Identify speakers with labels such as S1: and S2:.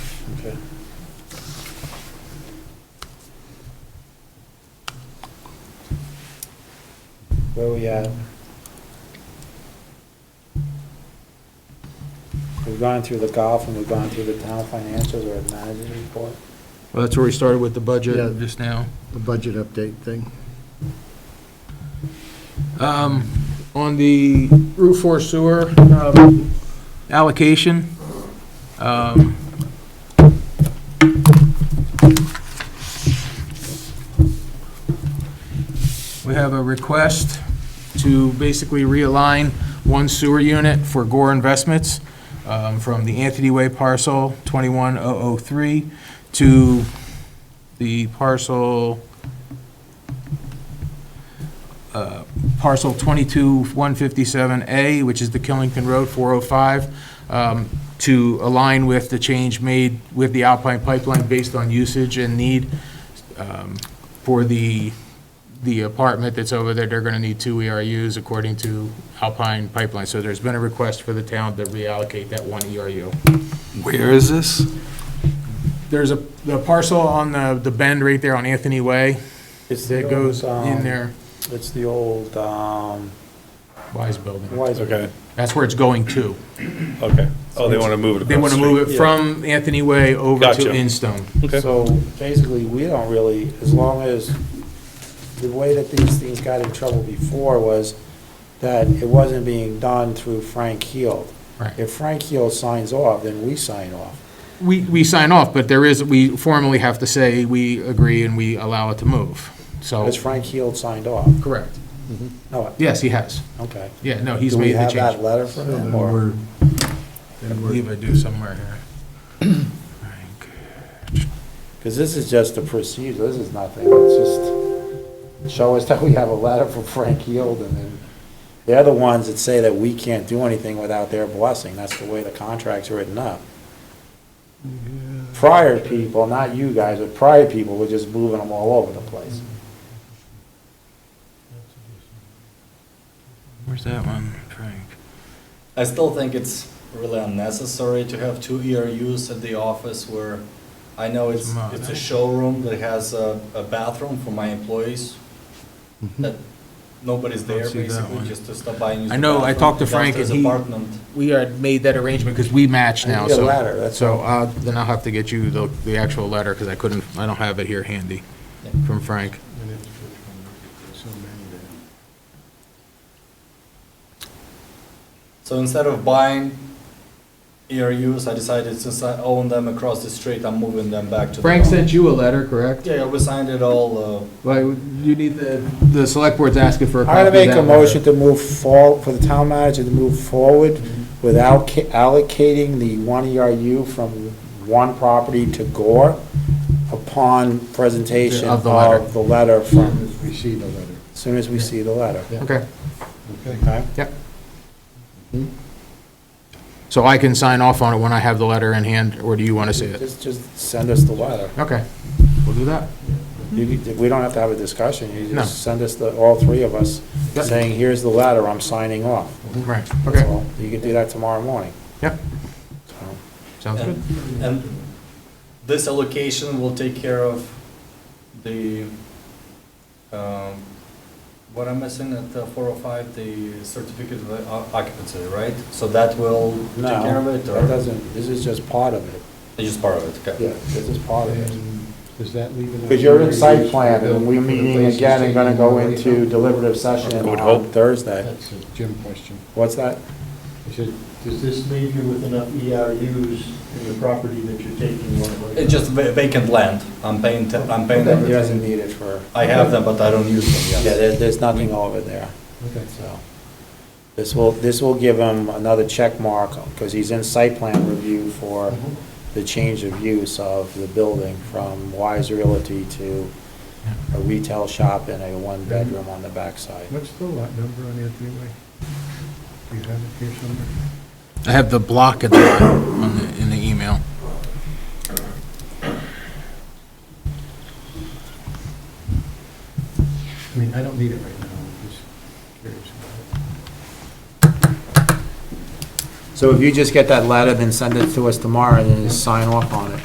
S1: Okay. Where we at? We've gone through the golf and we've gone through the town financials or the manager's report.
S2: Well, that's where we started with the
S3: Yeah.
S2: budget just now.
S3: the budget update thing.
S2: Um, On the Route 4 sewer um, allocation, um, we have a request to basically realign one sewer unit for Gore Investments um, from the Anthony Way parcel 21003 to the parcel parcel 22157A, which is the Killington Road 405, um, to align with the change made with the Alpine Pipeline based on usage and need um, for the, the apartment that's over there. They're going to need two ERUs according to Alpine Pipeline. So there's been a request for the town to reallocate that one E ERU.
S4: Where is this?
S2: There's a, the parcel on the, the bend right there on Anthony Way
S1: It's the
S2: that goes
S1: old,
S2: in
S1: um,
S2: there,
S1: It's the old, um,
S2: Wise Building.
S1: why is it?
S5: Okay,
S2: That's where it's going to.
S5: okay. Oh, they want to move it across
S2: They want to move it
S1: Yeah.
S2: from Anthony Way over to
S5: Gotcha.
S2: Instone.
S5: Okay.
S1: So basically, we don't really, as long as, the way that these things got in trouble before was that it wasn't being done through Frank Heald.
S2: Right.
S1: If Frank Heald signs off, then we sign off.
S2: We, we sign off, but there is, we formally have to say we agree and we allow it to move. So,
S1: Because Frank Heald signed off.
S2: correct.
S1: No,
S2: Yes, he has.
S1: okay.
S2: Yeah, no, he's
S1: Do we
S2: made the
S1: have that
S2: change.
S1: letter from
S3: So then
S1: him, or?
S3: we're-
S2: I
S3: then
S2: believe
S3: we're-
S2: I do somewhere here. Frank.
S1: Because this is just a procedure, this is nothing, it's just, show us that we have a letter from Frank Heald, and then, they're the ones that say that we can't do anything without their blessing, that's the way the contract's written up. Prior people, not you guys, but prior people were just moving them all over the place.
S2: Where's that one, Frank?
S6: I still think it's really unnecessary to have two E ERUs at the office where I know it's,
S2: Smart. eh?
S6: it's a showroom that has a, a bathroom for my employees. That nobody's
S2: Don't
S6: there
S2: see that one.
S6: basically, just to stop by and use
S2: Mm-hmm. I
S6: the
S2: know, I
S6: bathroom
S2: talked to Frank and
S6: downstairs
S2: he-
S6: apartment.
S2: We are, made that arrangement because we match
S1: I
S2: now,
S1: need a
S2: so.
S1: letter, that's
S2: So, uh, then I'll have to get you the, the actual letter because I couldn't, I don't have it here handy
S6: Yeah.
S2: from Frank.
S3: So many there.
S6: So instead of buying ERUs, I decided since I own them across the street, I'm moving them back to the.
S2: Frank
S6: office.
S2: sent you a letter, correct?
S6: Yeah, yeah, we signed it all, uh,
S2: Well, you need the, the select board's asking for a copy
S1: I'm
S2: of
S1: gonna make
S2: that
S1: a
S2: letter.
S1: motion to move for, for the town manager to move forward without ca- allocating the one ERU from one property to Gore upon presentation
S2: Of the letter.
S1: of the letter from,
S3: As we see the letter.
S1: as soon as we see the letter.
S2: Okay,
S1: Okay?
S2: yep. So I can sign off on it when I have the letter in hand, or do you want to see it?
S1: Just, just send us the letter.
S2: Okay, we'll do that.
S6: Mm-hmm.
S1: You, could- we don't have to have a discussion, you
S2: No.
S1: just send us the, all three of us,
S2: Yep.
S1: saying, here's the letter, I'm signing off.
S2: Right,
S1: That's
S2: okay,
S1: all. You can do that tomorrow morning.
S2: Yep.
S1: So,
S2: sounds good.
S6: And, and this allocation will take care of the, um, what I'm missing at the four oh five, the certificate of o- occupancy, right? So that will take care
S1: No,
S6: of it,
S1: that
S6: or
S1: doesn't, this is just part of it.
S6: it's just part of it, okay?
S1: Oh, Yeah, this is part of it.
S3: And Does that leave enough?
S1: Because you're in
S3: area
S1: site
S3: to
S1: plan,
S3: build
S1: and we're
S3: for the
S1: meeting
S3: places
S1: again and gonna
S3: they
S1: go
S3: already
S1: into
S3: have?
S1: deliberative session
S5: I
S1: on
S5: would hope.
S1: Thursday.
S3: That's a Jim question.
S1: What's that?
S3: He said, does this leave you with enough ERUs in the property that you're taking one
S6: It's just va- vacant land, I'm paying, te- I'm paying
S1: He
S6: them,
S1: doesn't need it for,
S6: I have them, but I don't use them
S1: yeah,
S6: yet.
S1: there, there's nothing over there, so. This will, this will give him another check mark, because he's in site plan review for
S3: Uh-huh.
S1: the change of use of the building from Wise Realty to a retail shop and a one-bedroom on the backside.
S3: What's the lot number on Anthony Way? Do you have it here somewhere?
S2: I have the block at the, on the, in the email.
S3: I mean, I don't need it right now, I'm just curious about
S1: So if you just get that letter, then send it to us tomorrow, and then just sign off on it.